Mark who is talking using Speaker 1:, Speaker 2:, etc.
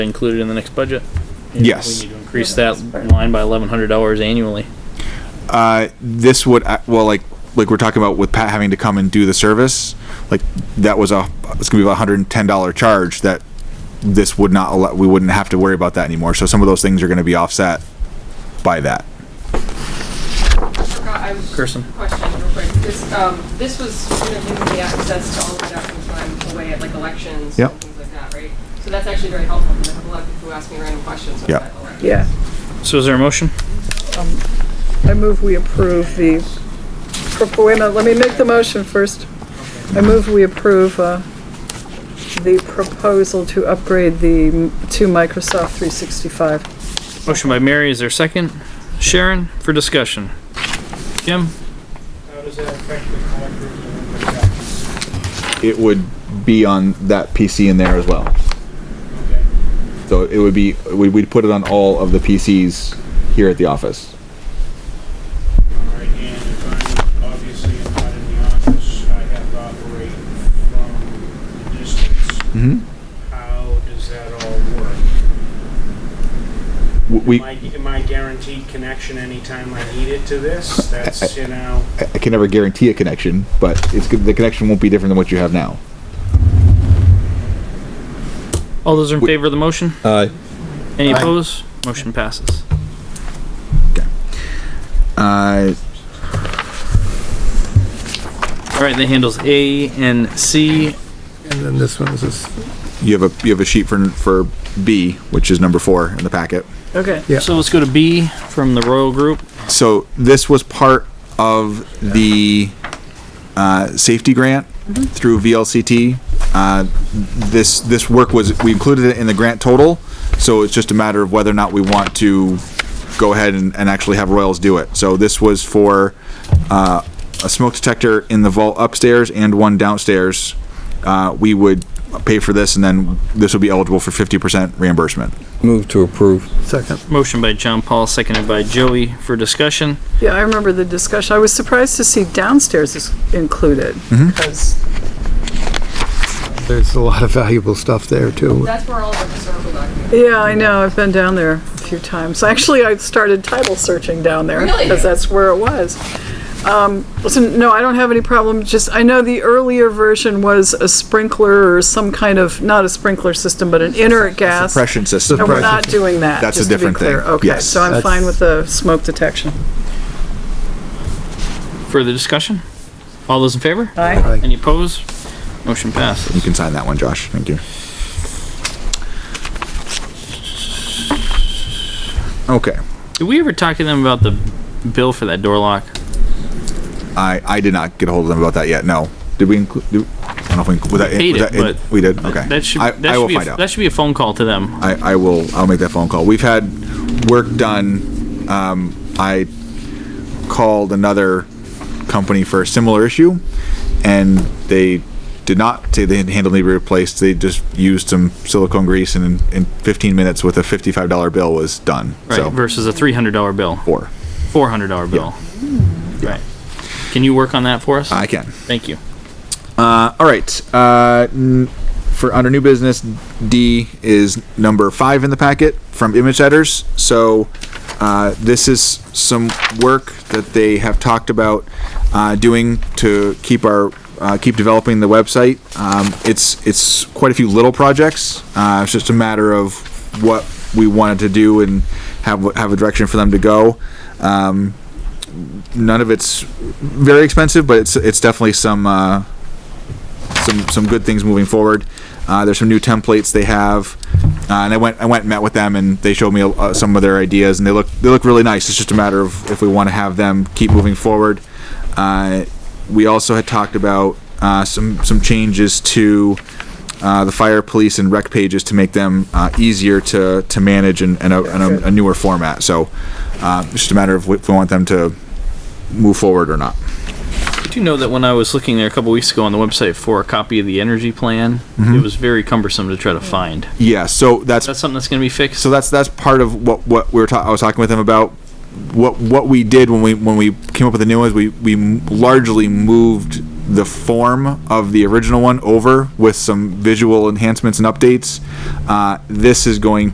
Speaker 1: included in the next budget?
Speaker 2: Yes.
Speaker 1: We need to increase that line by eleven hundred dollars annually.
Speaker 2: Uh, this would uh, well like like we're talking about with Pat having to come and do the service, like that was a it's gonna be a hundred and ten dollar charge that this would not allow. We wouldn't have to worry about that anymore. So some of those things are gonna be offset by that.
Speaker 3: forgot, I was.
Speaker 1: Kirsten.
Speaker 3: Question real quick. This, um, this was gonna give me access to all the documents when I'm away at like elections
Speaker 2: Yep.
Speaker 3: and things like that, right? So that's actually very helpful because I have a lot of people who ask me random questions
Speaker 2: Yep.
Speaker 3: about elections.
Speaker 4: Yeah,
Speaker 1: So is there a motion?
Speaker 4: I move we approve the, pro- wait a minute, let me make the motion first. I move we approve uh, the proposal to upgrade the, m- to Microsoft 365.
Speaker 1: Motion by Mary, is there a second? Sharon, for discussion. Jim?
Speaker 5: How does that affect the collectors and the taxes?
Speaker 2: It would be on that PC in there as well.
Speaker 5: Okay.
Speaker 2: So it would be we, we'd put it on all of the PCs here at the office.
Speaker 5: All right, and if I'm obviously not in the office, I have to operate from the distance.
Speaker 2: Mm-hmm.
Speaker 5: How does that all work?
Speaker 2: We
Speaker 5: Am I, am I guaranteed connection anytime I need it to this? That's, you know,
Speaker 2: I I can never guarantee a connection, but it's good, the connection won't be different than what you have now.
Speaker 1: All those in
Speaker 2: We-
Speaker 1: favor of the motion?
Speaker 2: Uh,
Speaker 1: Any opposed? Motion passes.
Speaker 2: uh,
Speaker 1: All right, that handles A and C.
Speaker 6: And then this one's just,
Speaker 2: you have a you have a sheet for for B, which is number four in the packet.
Speaker 1: Okay.
Speaker 6: Yeah.
Speaker 1: So let's go to B from the Royal Group.
Speaker 2: So this was part of the uh, safety grant through VLCT. Uh, this this work was we included it in the grant total, so it's just a matter of whether or not we want to go ahead and, and actually have Royals do it. So this was for uh, a smoke detector in the vault upstairs and one downstairs. Uh, we would pay for this, and then this would be eligible for fifty percent reimbursement.
Speaker 7: Move to approve.
Speaker 6: second,
Speaker 1: Motion by John Paul, seconded by Joey for discussion.
Speaker 4: Yeah, I remember the discussion. I was surprised to see downstairs is included. Because
Speaker 6: there's a lot of valuable stuff there too.
Speaker 3: That's where all of our historical documents.
Speaker 4: Yeah, I know, I've been down there a few times. Actually, I started title searching down there.
Speaker 3: Really?
Speaker 4: Because that's where it was. Um, listen, no, I don't have any problem, just, I know the earlier version was a sprinkler or some kind of, not a sprinkler system, but an inert gas.
Speaker 2: Suppression system.
Speaker 4: And we're not doing that,
Speaker 2: That's a
Speaker 4: just to be
Speaker 2: different thing,
Speaker 4: clear. Okay,
Speaker 2: yes.
Speaker 4: so I'm
Speaker 6: That's-
Speaker 4: fine with the smoke detection.
Speaker 1: Further discussion? All those in favor?
Speaker 4: Aye.
Speaker 1: Any opposed? Motion passes.
Speaker 2: You can sign that one, Josh. Thank you. Okay,
Speaker 1: Did we ever talk to them about the bill for that door lock?
Speaker 2: I, I did not get a hold of them about that yet, no. Did we include, do, I don't know if we, inclu- was that, in-
Speaker 1: Paid
Speaker 2: was
Speaker 1: it,
Speaker 2: that, in-
Speaker 1: but-
Speaker 2: we did, okay.
Speaker 1: That should,
Speaker 2: I,
Speaker 1: that
Speaker 2: I
Speaker 1: should
Speaker 2: will
Speaker 1: be, a-
Speaker 2: find out.
Speaker 1: that should be a phone call to them.
Speaker 2: I, I will, I'll make that phone call. We've had work done, um, I called another company for a similar issue, and they did not say they had handle needed replaced, they just used some silicone grease and in, in fifteen minutes with a fifty-five dollar bill was done,
Speaker 1: Right,
Speaker 2: so.
Speaker 1: versus a three hundred dollar bill,
Speaker 2: Four.
Speaker 1: four hundred dollar bill. Right. Can you work on that for us?
Speaker 2: I can.
Speaker 1: Thank you.
Speaker 2: Uh, all right. Uh, n- for under new business, D is number five in the packet from Image Setters. So uh, this is some work that they have talked about uh, doing to keep our uh, keep developing the website. Um, it's it's quite a few little projects. Uh, it's just a matter of what we wanted to do and have have a direction for them to go. Um, none of it's very expensive, but it's it's definitely some. Uh, some some good things moving forward. Uh, there's some new templates they have, uh, and I went I went and met with them, and they showed me uh, some of their ideas, and they look they look really nice. It's just a matter of if we want to have them keep moving forward. Uh, we also had talked about uh, some some changes to uh, the fire, police, and rec pages to make them uh, easier to to manage and, and, a, and a, a newer format. So uh, it's just a matter of if we want them to move forward or not.
Speaker 1: Do you know that when I was looking there a couple weeks ago on the website for a copy of the energy plan,
Speaker 2: Mm-hmm.
Speaker 1: it was very cumbersome to try to find.
Speaker 2: Yeah. So that's
Speaker 1: That's something that's going to be fixed.
Speaker 2: so that's that's part of what what we were ta- I was talking with them about what what we did when we when we came up with the new ones, we we largely moved the form of the original one over with some visual enhancements and updates. Uh, this is going to